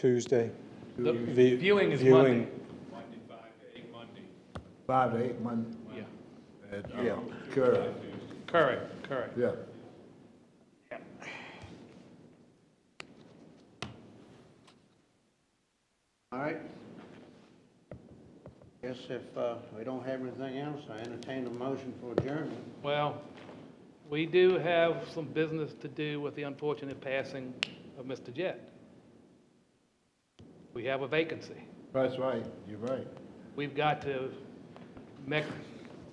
Tuesday. The Vi- viewing is viewing. Monday. Five to eight Monday. Yeah, Yeah, correct, correct, correct. yeah. All right. Guess if uh, we don't have anything else, I entertain a motion for adjournment. Well, we do have some business to do with the unfortunate passing of Mr. Jett. We have a vacancy. That's right, you're right. We've got to make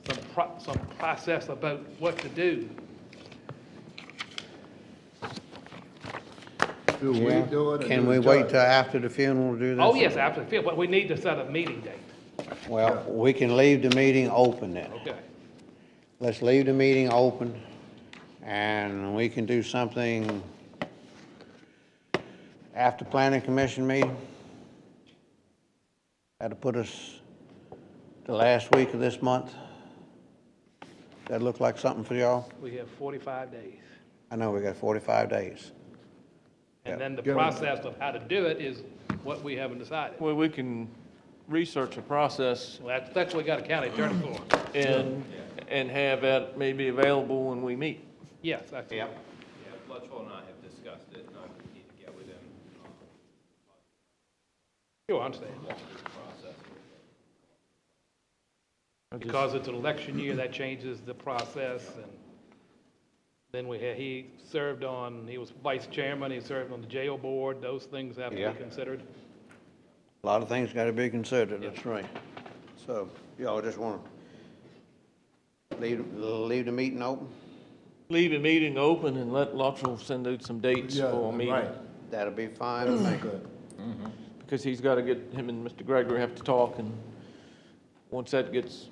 some, pro- some process about what to do. Do we do it? or Can do we the wait judge? till after the funeral to do this? Oh, yes, absolutely, but we need to set a meeting date, Well, we can leave the meeting open then. okay? Let's leave the meeting open, and we can do something after planning commission meeting. That'll put us the last week of this month. That look like something for y'all? We have 45 days. I know we got 45 days. And then the Go. process of how to do it is what we haven't decided. Well, we can research the process Well, that's, that's what we got a county attorney for. and, and have that maybe available when we meet. Yes, that's. Yep. Yeah, Luttrell and I have discussed it, and I need to get with him um, on Sure, I understand. the process. I just- Because it's an election year, that changes the process, and then we had, he served on, he was vice chairman, he served on the jail board, those things have to Yeah. be considered. A lot of things got to be considered, that's right. So, y'all just want to leave, leave the meeting open? Leave the meeting open and let Luttrell send out some dates Yeah, for a right, meeting. That'll be fine with me. good. Because he's got to get, him and Mr. Gregory have to talk and once that gets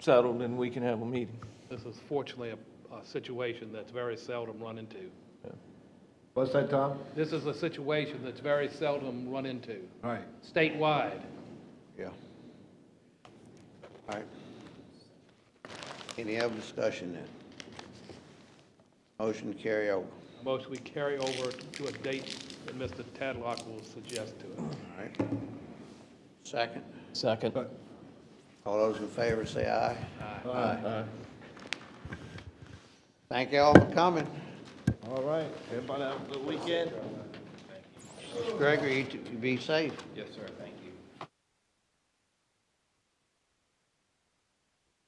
settled, then we can have a meeting. This is fortunately a, a situation that's very seldom run into. What's that, Tom? This is a situation that's very seldom run into, Right. statewide. Yeah. All right. Any other discussion then? Motion to carry over, Most we carry over to a date that Mr. Tadlock will suggest to us. all right? Second, Second. all those in favor say aye. Aye. Thank you all for coming. All right, everybody have a good weekend. Gregory, you t- be safe. Yes, sir.